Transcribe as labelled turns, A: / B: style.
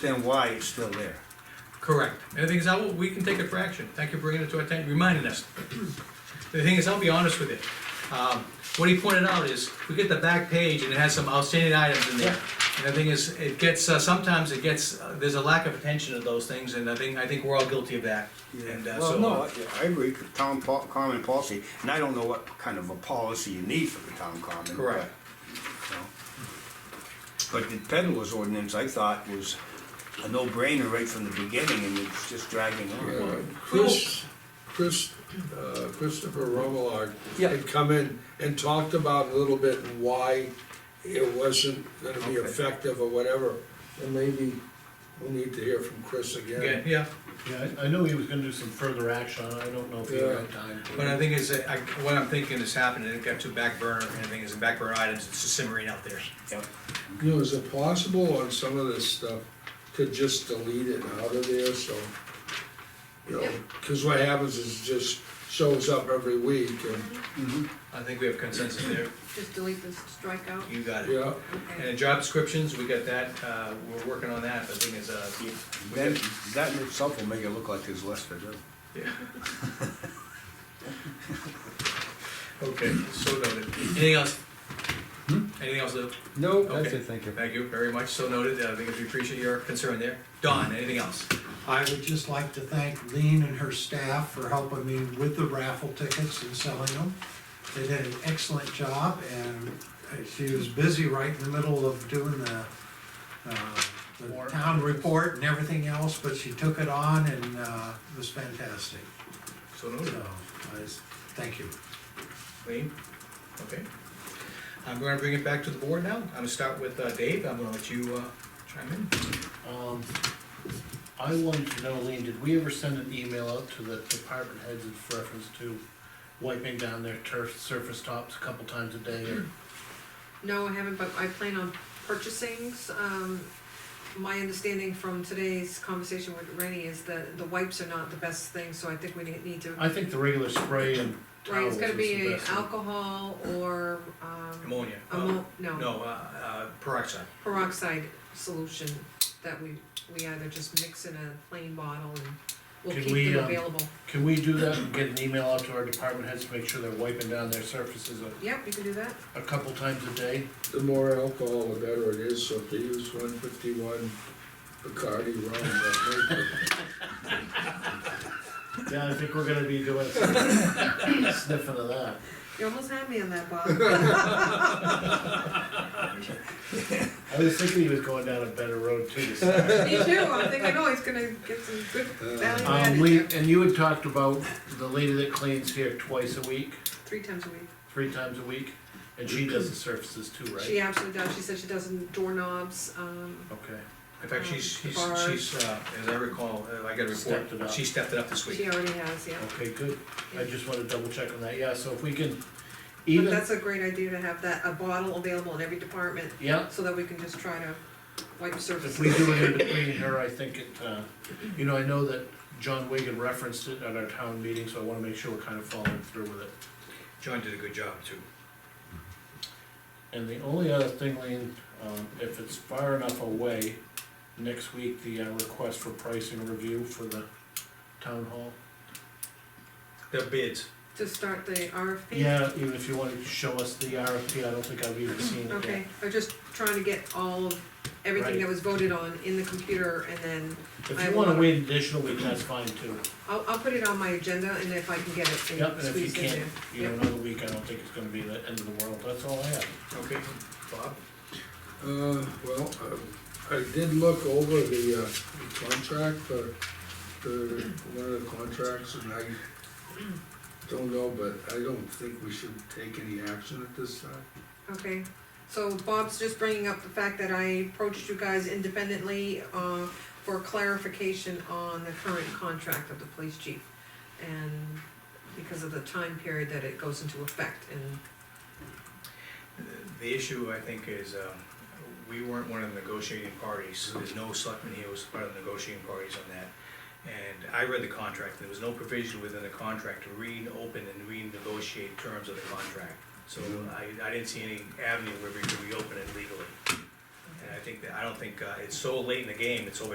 A: then why it's still there.
B: Correct. And the thing is, I will, we can take it for action. Thank you for bringing it to our attention, reminding us. The thing is, I'll be honest with you. Um, what he pointed out is, we get the back page and it has some outstanding items in there. And the thing is, it gets, uh, sometimes it gets, uh, there's a lack of attention to those things, and I think, I think we're all guilty of that. And, uh,
A: Well,
B: so-
A: no, I- I agree with town po- common policy, and I don't know what kind of a policy you need for the town common. but,
B: Correct.
A: you know. But the peddler's ordinance, I thought, was a no-brainer right from the beginning, and it's just dragging
C: Uh,
A: on.
C: Chris, Chris, uh, Christopher Romelard
A: Yeah.
C: had come in and talked about a little bit why it wasn't gonna be
A: Okay.
C: effective or whatever. And maybe we'll need to hear from Chris
B: Yeah,
C: again.
B: yeah.
D: Yeah, I I know he was gonna do some further action, on it. I don't know if he
C: Yeah.
D: had time to.
B: But I think is, that I, what I'm thinking is happening, it got to back burner, and the thing is, the back burner items, it's just simmering out there.
A: Yep.
C: You know, is it possible on some of this stuff to just delete it out of there, so? You know, cause what happens is it just shows up every week and,
B: I think we have consensus there.
E: Just delete this strikeout,
B: You got it.
C: yeah,
B: And the
E: okay.
B: job descriptions, we got that, uh, we're working on that, but the thing is, uh,
A: Then, that in itself will make it look like there's less to do.
B: yeah. Okay, so noted. Anything else? Anything else, Lou?
A: No,
B: Okay. Hmm? Thank you very much, so noted, I think we appreciate your concern there. Don, anything else?
F: I would just like to thank Lean and her staff for helping me with the raffle tickets and selling them. They did an excellent job and uh, she was busy right in the middle of doing the, uh, the town report and everything else, but she took it on and, uh, it was fantastic.
B: So
F: So,
B: noted.
F: I, s- thank you.
B: Lean? Okay. I'm gonna bring it back to the board now. I'm gonna start with uh, Dave, I'm gonna let you uh, chime in.
D: Um, I wanted to know, Lean, did we ever send an email out to the department heads in reference to wiping down their turf surface tops a couple times a day or?
E: No, I haven't, but I plan on purchasing, um, my understanding from today's conversation with Rennie is that the wipes are not the best thing, so I think we need- need to.
D: I think the regular spray and Uh,
E: Right,
D: towels
E: it's
D: is
E: gonna be
D: the
E: a
D: best. thing.
E: alcohol or, um,
B: Ammonia.
E: ammo,
B: Uh,
E: no,
B: No, uh, uh, peroxide.
E: peroxide solution that we, we either just mix in a plain bottle and we'll
D: Can
E: keep
D: we,
E: them
D: um,
E: available.
D: Can we do that and get an email out to our department heads to make sure they're wiping down their surfaces a,
E: Yep, you can do that,
D: a couple times a day?
C: the more alcohol, the better it is, so if they use one fifty-one Bacardi rum, that may be.
D: Yeah, I think we're gonna be doing sniffing of that.
E: you almost had me on that, Bob.
D: I was thinking he was going down a better road too. to start.
E: Me too, I think I know, he's gonna get some good value
D: Um,
E: added,
D: Lee,
E: there.
D: and you had talked about the lady that cleans here twice a week,
E: three times a week.
D: three times a week, and she does the surfaces too, right?
E: She absolutely does, she said she does doorknobs, um,
D: Okay,
B: In fact,
E: Um,
B: she's, she's,
E: bars.
B: she's, uh, as I recall, uh, I got a
D: Oh, Stepped it
B: report,
D: up.
B: she stepped it up this
E: she
B: week.
E: already has, yeah.
D: okay, good. I
E: Yeah.
D: just wanna double check on that, yeah, so if we can,
E: But
D: even,
E: that's a great idea to have that, a bottle available in every department,
D: yeah,
E: so that we can just try to wipe surfaces.
D: if we do it in between her, I think it, uh, you know, I know that John Wigan referenced it at our town meeting, so I wanna make sure we're kinda following through with it.
B: John did a good job too.
D: And the only other thing, Lean, um, if it's far enough away, next week, the uh, request for pricing review for the town hall.
B: The bids.
E: To start the RFP?
D: Yeah, even if you wanted to show us the RFP, I don't think I've even seen it
E: Okay,
D: yet.
E: I'm just trying to get all of, everything that
D: Right.
E: was voted on in the computer, and then
D: If
E: I
D: you wanna
E: will.
D: wait an additional week, that's fine too.
E: I'll, I'll put it on my agenda, and if I can get it,
D: Yep,
E: and
D: and if you
E: squeeze it in
D: can't,
E: there.
D: you know, another week, I don't think it's gonna be the end of the world, that's all I have.
B: Okay. Bob?
C: Uh, well, I, I did look over the, uh, contract for, for one of the contracts, and I don't know, but I don't think we should take any action at this time.
E: Okay, so Bob's just bringing up the fact that I approached you guys independently, uh, for clarification on the current contract of the police chief. And because of the time period that it goes into effect and,
B: The issue, I think, is, um, we weren't one of the negotiating parties, there's no selectman here who was part of the negotiating parties on that. And I read the contract, there was no provision within the contract to reopen and renegotiate terms of the contract. So I, I didn't see any avenue where we could reopen it legally. And I think, that I don't think, uh, it's so late in the game, it's over.